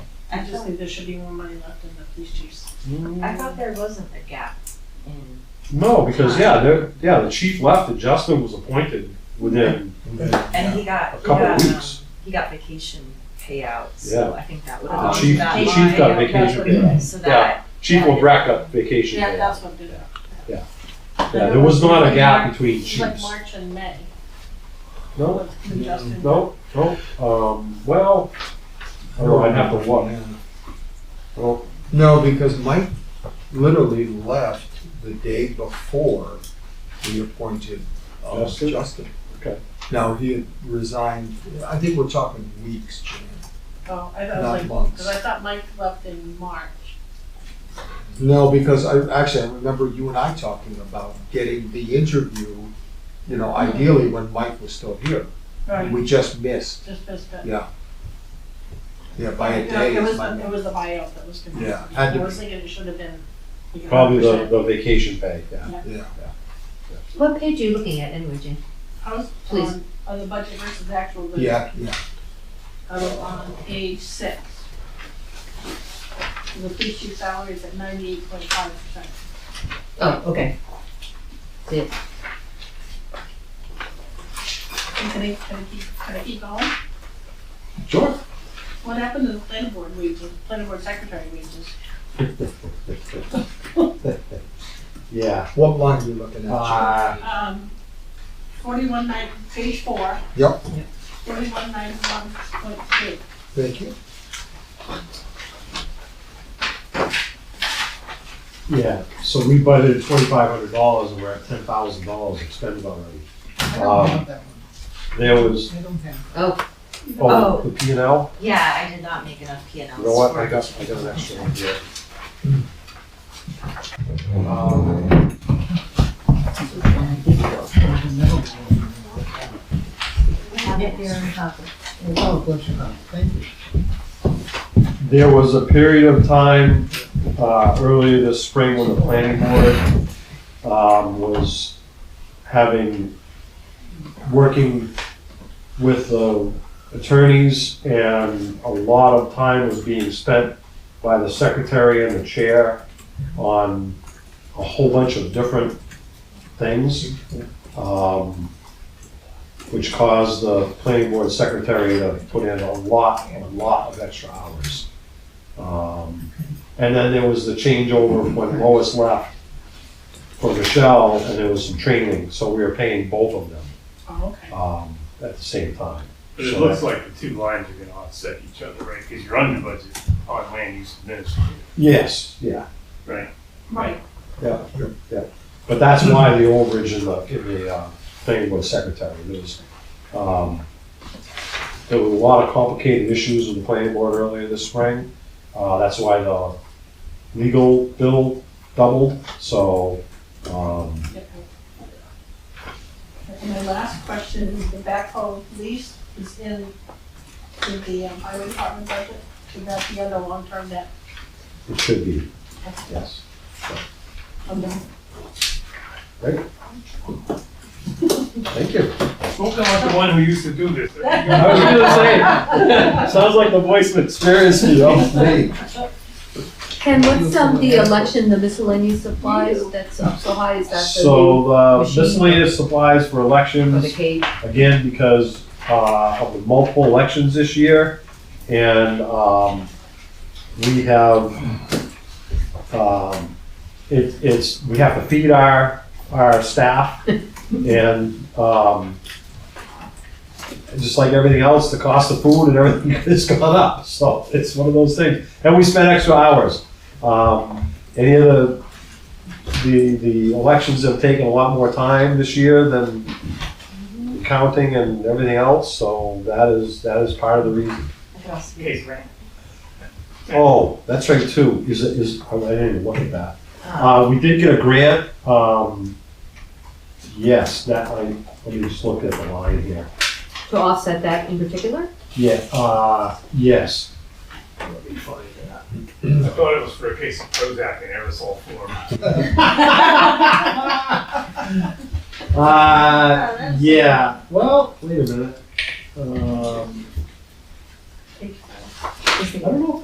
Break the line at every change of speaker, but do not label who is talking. I just think there should be more money left in the police chiefs.
I thought there wasn't a gap in.
No, because, yeah, there, yeah, the chief left and Justin was appointed within
And he got,
a
he
couple
got,
of
um,
weeks.
he got vacation payouts, so I think that would
The
have.
chief-
that
the chief
line,
got
yeah,
vacation
that's what it
payout.
is. So that,
Chief Labreck got vacation
Yeah,
day. Yeah,
that's what did it.
there was not a gap between
It's like
chiefs.
March and May.
No,
with- with Justin.
no, no, um, well, I don't know, I'd have to look. Well,
Oh. No, because Mike literally left the day before we appointed uh,
Justin?
Justin.
Okay.
Now, he had resigned, I think we're talking weeks, Jan.
Oh, I thought it
Not
was like,
months.
because I thought Mike left in March.
No, because I, actually, I remember you and I talking about getting the interview, you know, ideally when Mike was still here. We just missed,
Just as bad.
Yeah, yeah, by a
You know,
day.
It
it's
was,
my-
the- it was the buyout that was confusing.
Yeah, had to
I was
be.
thinking it should have been. like
probably the,
100%.
the vacation pay, yeah.
Yeah,
what page are you looking at anyway, Jane?
I was
Please.
on, on the budget versus actual. budget.
yeah, yeah.
I was on page six. The police chief salary is at ninety-eight point five percent.
Oh, okay. See it.
Can I, can I keep, can I keep going?
Sure.
What happened to the planning board wages, planning board secretary wages?
Yeah.
What line are you looking at? Jan?
Uh,
Um, forty-one nine, page four.
Yep.
Yep.
Forty-one nine one point three.
Thank you.
yeah, so we budgeted twenty-five hundred dollars and we're at ten thousand dollars expended already. Um,
I don't have that
There was,
one, I don't have.
oh, the P and L,
Yeah, I did not make enough P and Ls.
you know what,
for
I
it.
got, I got an extra one here. Um,
Have it there on top.
Oh, of course you have. thank you.
There was a period of time, uh, earlier this spring when the planning board, um, was having, working with the attorneys and a lot of time was being spent by the secretary and the chair on a whole bunch of different things. Um, which caused the planning board secretary to put in a lot, a lot of extra hours. Um, And then there was the changeover when Lois left for Michelle, and there was some training, so we were paying both of them
Oh, okay.
um, at the same time.
But it looks like the two lines are gonna offset each other, right? Because you're under budget on land use administrative,
Yes, yeah,
right?
Right,
yeah, yeah. But that's why the overage in the, in the uh, planning board secretary, there was, um, there were a lot of complicated issues with the planning board earlier this spring. Uh, That's why the legal bill doubled, so, um,
Yep. And my last question, is the backhoe lease is in, in the um, highway department budget, should that be under long-term debt?
it should be, yes.
Um,
Thank you.
Spoken like the one who used to do this.
I was gonna say, sounds like the voice of experience, you know?
Hey,
Ken, what's um the election, the miscellaneous supplies that's up so high, is that the new?
So, uh, miscellaneous supplies for
For the
elections,
cage.
again, because, uh, of the multiple elections this year. And, um, we have, um, it, it's, we have to feed our, our staff. And, um, just like everything else, the cost of food and everything has gone up. So it's one of those things. And we spend extra hours. Um, any of the, the, the elections have taken a lot more time this year than counting and everything else, so that is, that is part of the reason.
I could also use rent.
Oh, that's right too, is, is, oh, I didn't even look at that. Uh, we did get a grant, um, yes, that, I, let me just look at the line here.
To offset that in particular?
Yeah, uh, yes. Let me find that.
I thought it was for a case of Prozac and aerosol form.
Uh, yeah, well, wait a minute. Uh,